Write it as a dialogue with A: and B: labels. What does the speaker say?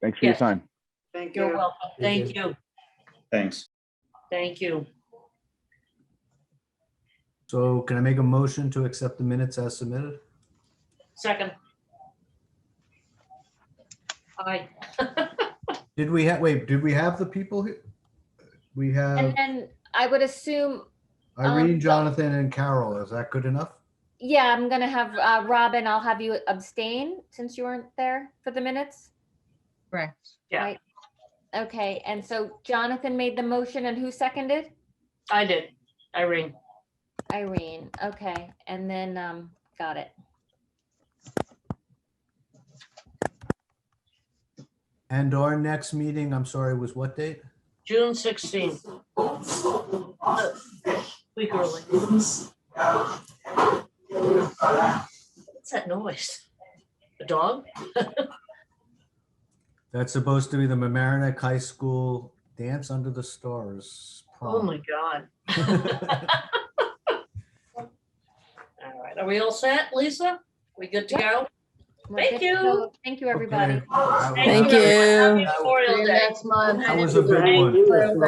A: Thanks for your
B: Yes.
A: time.
C: Thank
B: You're
C: you.
B: welcome. Thank you.
D: Thanks.
B: Thank you.
E: So can I make a motion to accept the minutes as submitted?
B: Second. Aye.
E: Did we have, wait, did we have the people? who- We have
F: And then I would assume,
E: Irene,
F: um,
E: Jonathan, and Carol. Is that good enough?
F: yeah, I'm gonna have, uh, Robin, I'll have you abstain since you weren't there for the minutes.
G: Correct.
B: Yeah,
F: Right. Okay, and so Jonathan made the motion and who seconded?
B: I did. Irene.
F: Irene, okay, and then, um, got it.
E: And our next meeting, I'm sorry, was what date?
B: June 16th. Week early. What's that noise? A dog?
E: That's supposed to be the Mamaroneck High School Dance Under the Stars.
B: Oh,
E: prom.
B: my God. All right. Are we all set, Lisa? We good to go?
F: We're
B: Thank
F: good to
B: you.
F: go. Thank you, everybody.
E: Okay. That was-
H: Thank you.
B: everyone. Happy Memorial
G: See you
B: Day.
G: Next month.
E: That was a big
B: Thank
E: one.
G: you.